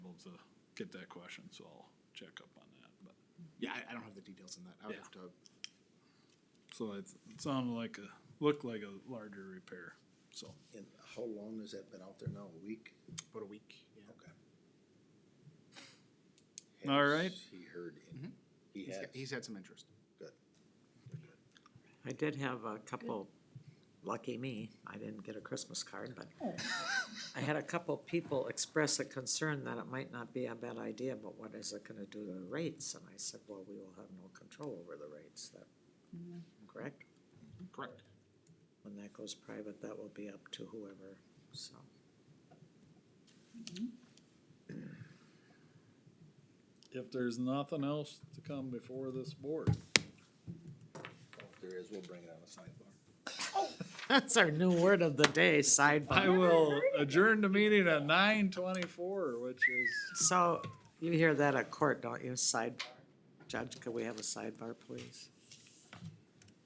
to get that question, so I'll check up on that, but. Yeah, I, I don't have the details on that. I would Yeah. have to, So it sounded like a, looked like a larger repair, so. And how long has that been out there now? A week? about a week, yeah. Okay. All right. Has He heard, any- Mhm. he He's, had, got- he's had some interest. I did have a couple, lucky me, I didn't get a Christmas card, but I had a couple people express a concern that it might not be a bad idea, but what is it gonna do to the rates? And I said, well, we will have no control over the rates, that, correct? Correct. When that goes private, that will be up to whoever, so. If there's nothing else to come before this board. if there is, we'll bring it on the sidebar. That's our new word of the day, I sidebar. will adjourn the meeting at nine twenty-four, which is, So, you hear that at court, don't you, sidebar? Judge, could we have a sidebar, please?